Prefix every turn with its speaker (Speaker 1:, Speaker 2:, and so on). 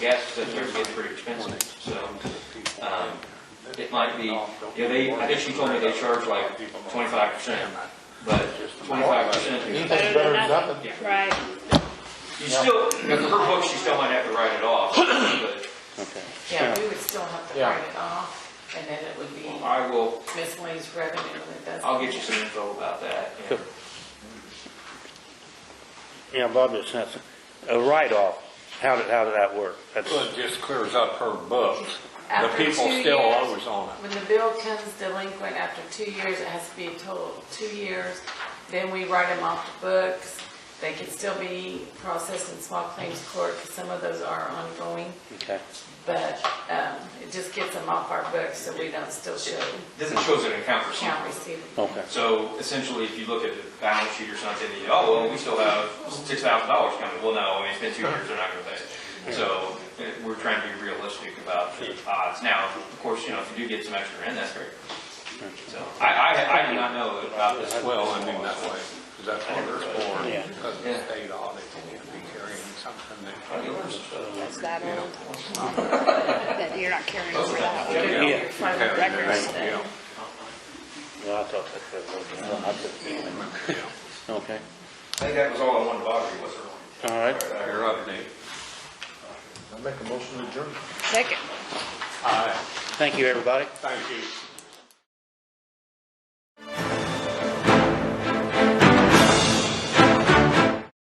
Speaker 1: so here it's getting pretty expensive, so, um, it might be, yeah, they, I think she told me they charge like twenty-five percent, but twenty-five percent,
Speaker 2: Anything's better than nothing.
Speaker 1: yeah.
Speaker 3: Right,
Speaker 1: You still, for her book, she still might have to write it off, but
Speaker 4: Okay.
Speaker 5: Yeah, we would still have to
Speaker 2: Yeah.
Speaker 5: write it off, and then it would be
Speaker 1: I will,
Speaker 5: miscellaneous revenue that doesn't.
Speaker 1: I'll get you some info about that. and-
Speaker 4: Sure. Yeah, Bob, it's not, a write-off, how did, how did that work? That's,
Speaker 6: Well, it just clears up her books. The
Speaker 5: After
Speaker 6: people
Speaker 5: two
Speaker 6: still
Speaker 5: years-
Speaker 6: always on it.
Speaker 5: When the bill comes delinquent after two years, it has to be a total of two years, then we write them off the books. They can still be processed in small claims court, because some of those are ongoing,
Speaker 4: okay.
Speaker 5: but um, it just gets them off our books, so we don't still show
Speaker 1: This shows an account receivable.
Speaker 5: account receivable.
Speaker 4: Okay.
Speaker 1: So essentially, if you look at the balance sheet or something, you, oh, well, we still have six thousand dollars coming. Well, no, I mean, it's been two years, they're not gonna pay it. So eh, we're trying to be realistic about the odds. Now, of course, you know, if you do get some extra in, that's great. So I, I, I do not know about this.
Speaker 6: Well, I mean, that way, because that's what they're for.
Speaker 4: Yeah.
Speaker 6: Because the state audit, they need to be carrying something that.
Speaker 3: that's that old. That you're not carrying over that one.
Speaker 6: Yeah.
Speaker 5: Private records,
Speaker 6: Yeah.
Speaker 5: uh,
Speaker 4: Well, I thought that was, well, I couldn't-
Speaker 1: I
Speaker 4: okay,
Speaker 1: think that was all I wanted to bother you with. Earl.
Speaker 4: all right.
Speaker 6: Your update.
Speaker 2: I make a motion to adjourn.
Speaker 3: Second.
Speaker 6: Aye.
Speaker 4: Thank you, everybody.
Speaker 6: Thank you.